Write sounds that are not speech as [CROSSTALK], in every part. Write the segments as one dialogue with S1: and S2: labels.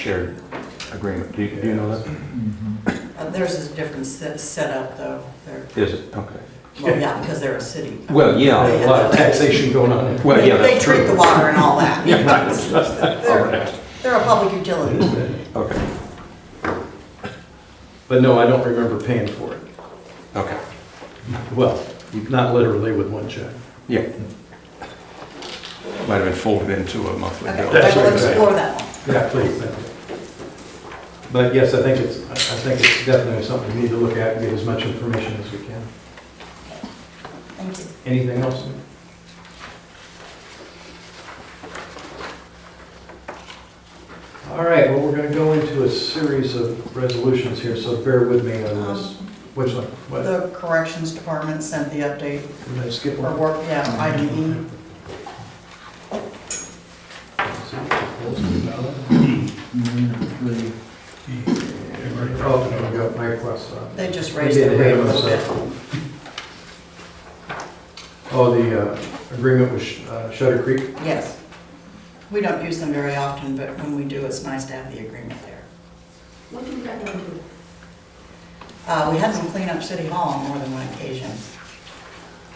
S1: shared agreement. Do you, do you know that?
S2: Uh, Theirs is a different se- setup, though. They're,
S1: Is it? Okay.
S2: well, yeah, because they're a city.
S1: Well,
S3: Uh,
S1: yeah,
S2: They
S1: a
S2: have
S1: lot of
S2: their-
S1: taxation going on. there. Well, yeah,
S2: They
S1: that's true.
S2: treat the water and all
S1: [LAUGHS]
S2: that.
S1: Yeah, right. All
S2: [LAUGHS] They're,
S1: right.
S2: they're a public utility.
S1: Okay,
S3: But no, I don't remember paying for it.
S1: okay,
S3: Well, not literally with one check.
S1: yeah. Might have been folded into a monthly
S2: Okay,
S1: bill.
S3: That's
S2: we'll
S3: what they-
S2: explore that one.
S3: Yeah, please. thank you. But yes, I think it's, I I think it's definitely something we need to look at and get as much information as we can.
S2: Thank you.
S3: Anything else? All right, well, we're going to go into a series of resolutions here, so bear with me on
S1: Uh,
S3: this.
S2: Um,
S3: Which one? What?
S2: The corrections department sent the update
S3: Did I skip
S2: for
S3: one?
S2: work, yeah, item E.
S3: Oh, no, I got my plus on.
S2: They just raised their rate a little bit.
S3: Oh, the uh, agreement with Sh- uh, Shutter Creek?
S2: Yes. We don't use them very often, but when we do, it's nice to have the agreement there.
S4: What do you got going on?
S2: Uh, We had them clean up City Hall on more than one occasion.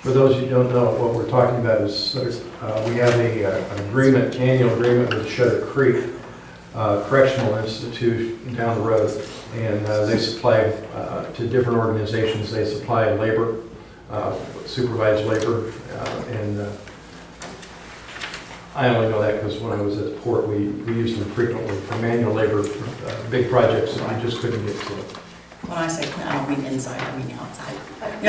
S3: For those who don't know, what we're talking about is, uh, we have a, uh, an agreement, annual agreement with Shutter Creek uh, Correctional Institute down the road, and uh, they supply, uh, to different organizations, they supply labor, uh, supervised labor, uh, and uh, I only know that because when I was at the port, we, we used them frequently for manual labor, for, uh, big projects, and I just couldn't get to it.
S2: When I say clean, I don't mean inside, I mean outside.
S1: Um,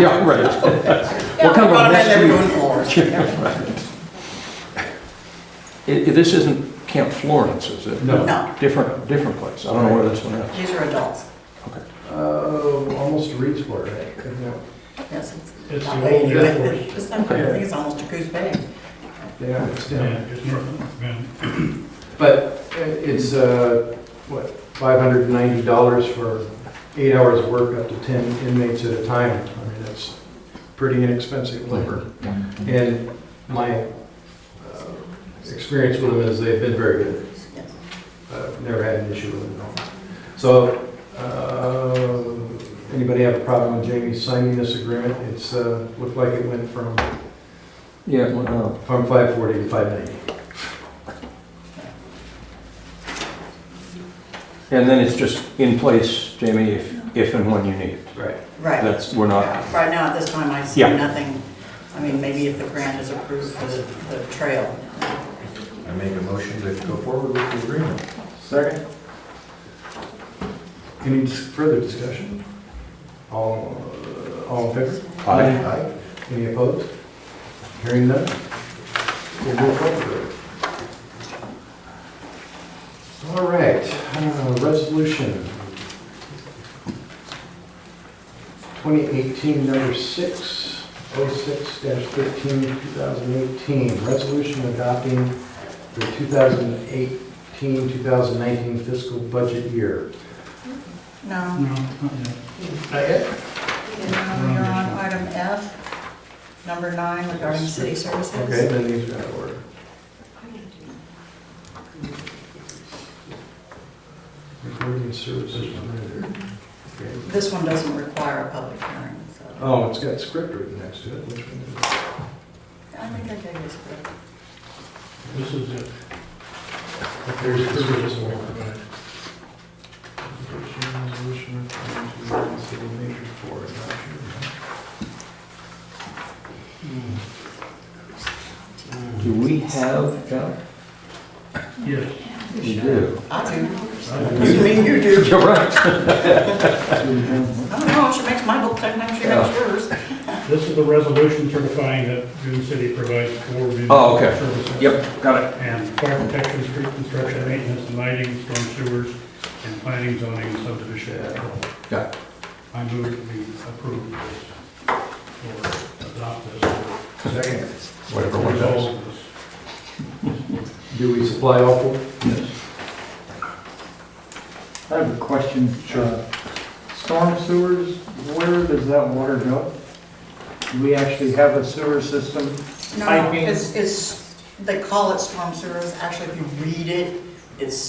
S1: Yeah, right.
S2: [LAUGHS] Yeah,
S1: What kind of
S2: brought
S1: a
S2: them in,
S1: mess
S2: they were
S1: you-
S2: doing floors.
S1: [LAUGHS] I- i- This isn't Camp Florence, is it?
S3: No.
S2: No,
S1: Different, different place. I don't know where this one is.
S2: these are adults.
S1: Okay.
S3: Uh, almost reads for it, couldn't it?
S2: Yes.
S5: It's
S2: not
S5: the
S2: big,
S5: old
S2: but
S5: golf course.
S2: [LAUGHS] it's- it's not- I think it's almost a goose bag.
S3: Yeah, it's down.
S5: Yeah, it's north, man.
S3: But i- it's, uh, what, $590 for eight hours of work up to 10 inmates at a time. I mean, that's pretty inexpensive labor. And my uh, experience with them is they've been very good.
S2: Yes.
S3: Uh, Never had an issue with them at all. So, uh, anybody have a problem with Jamie signing this agreement? It's, uh, looked like it went from,
S1: Yeah, well, no.
S3: from 540 to 590.
S1: and then it's just in place, Jamie, if, if and when you need it.
S3: Right.
S2: Right.
S1: That's, we're not,
S2: Yeah, Right now, at this time, I see
S1: Yeah.
S2: nothing. I mean, maybe if the grant is approved for the, the trail.
S6: I make a motion to go forward with the agreement.
S3: Second. Any dis- further discussion? All, uh, all in favor?
S1: Aye.
S6: Aye.
S3: Any opposed? Hearing none? We'll move forward. All right, uh, resolution 2018, number oh 6, 06-13, 2018. Resolution adopting the 2018-2019 fiscal budget year.
S2: No,
S5: No, not yet.
S3: Not yet?
S2: no, you're on item F, number nine regarding city
S3: Okay,
S2: services.
S3: then these are out of order. Recording services. manager. Okay.
S2: This one doesn't require a public hearing, so.
S3: Oh, it's got script written next to it, which one is it?
S2: I think I gave this, but
S5: This is it.
S3: There's the service one. Resolution referring to city major for adoption.
S1: do we have, John?
S5: Yes.
S1: We do.
S2: I do.
S5: I-
S2: You mean you do?
S1: You're right.
S2: I don't know, she makes my book, sometimes she makes yours.
S5: This is the resolution certifying that Dune City provides for Dune
S1: Oh, okay.
S5: services.
S1: Yep, got it.
S5: And fire protection, street construction, maintenance, and lighting, storm sewers, and planning, zoning, and subdivision control.
S1: Got it.
S5: I move that we approve this, or adopt this,
S3: Second.
S1: Whatever
S5: or
S1: one does.
S5: resolve this.
S3: Do we supply all four?
S7: I have a question. Sure. Storm sewers, where does that water go? Do we actually have a sewer system?
S2: No,
S7: Piping.
S2: it's, it's, they call it storm sewers, actually, if you read it, it's